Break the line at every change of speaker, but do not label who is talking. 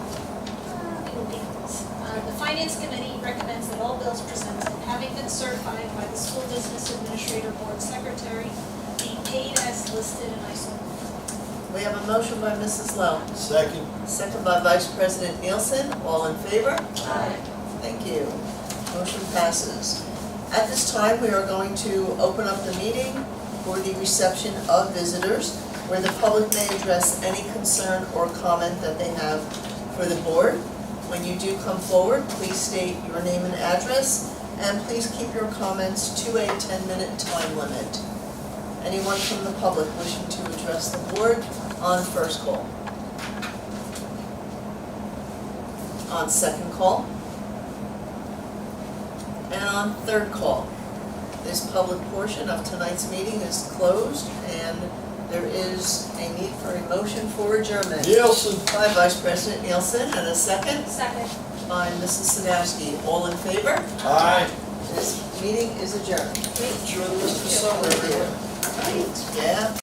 Uh, Finance Committee recommends that all bills presented, having been certified by the School Business Administrator Board Secretary, be paid as listed in ISO.
We have a motion by Mrs. Lowe,
Second,
second by Vice President Nielsen. All in favor?
Aye.
Thank you. Motion passes. At this time, we are going to open up the meeting for the reception of visitors, where the public may address any concern or comment that they have for the board. When you do come forward, please state your name and address, and please keep your comments to a 10-minute time limit. Anyone from the public wishing to address the board on first call? On second call? And on third call, this public portion of tonight's meeting is closed and there is a need for a motion for adjournment.
Nielsen.
By Vice President Nielsen and a second
Second.
by Mrs. Sinowski. All in favor?
Aye.
This meeting is adjourned.
Sure, Mr. Summer, everyone.
Right, yeah.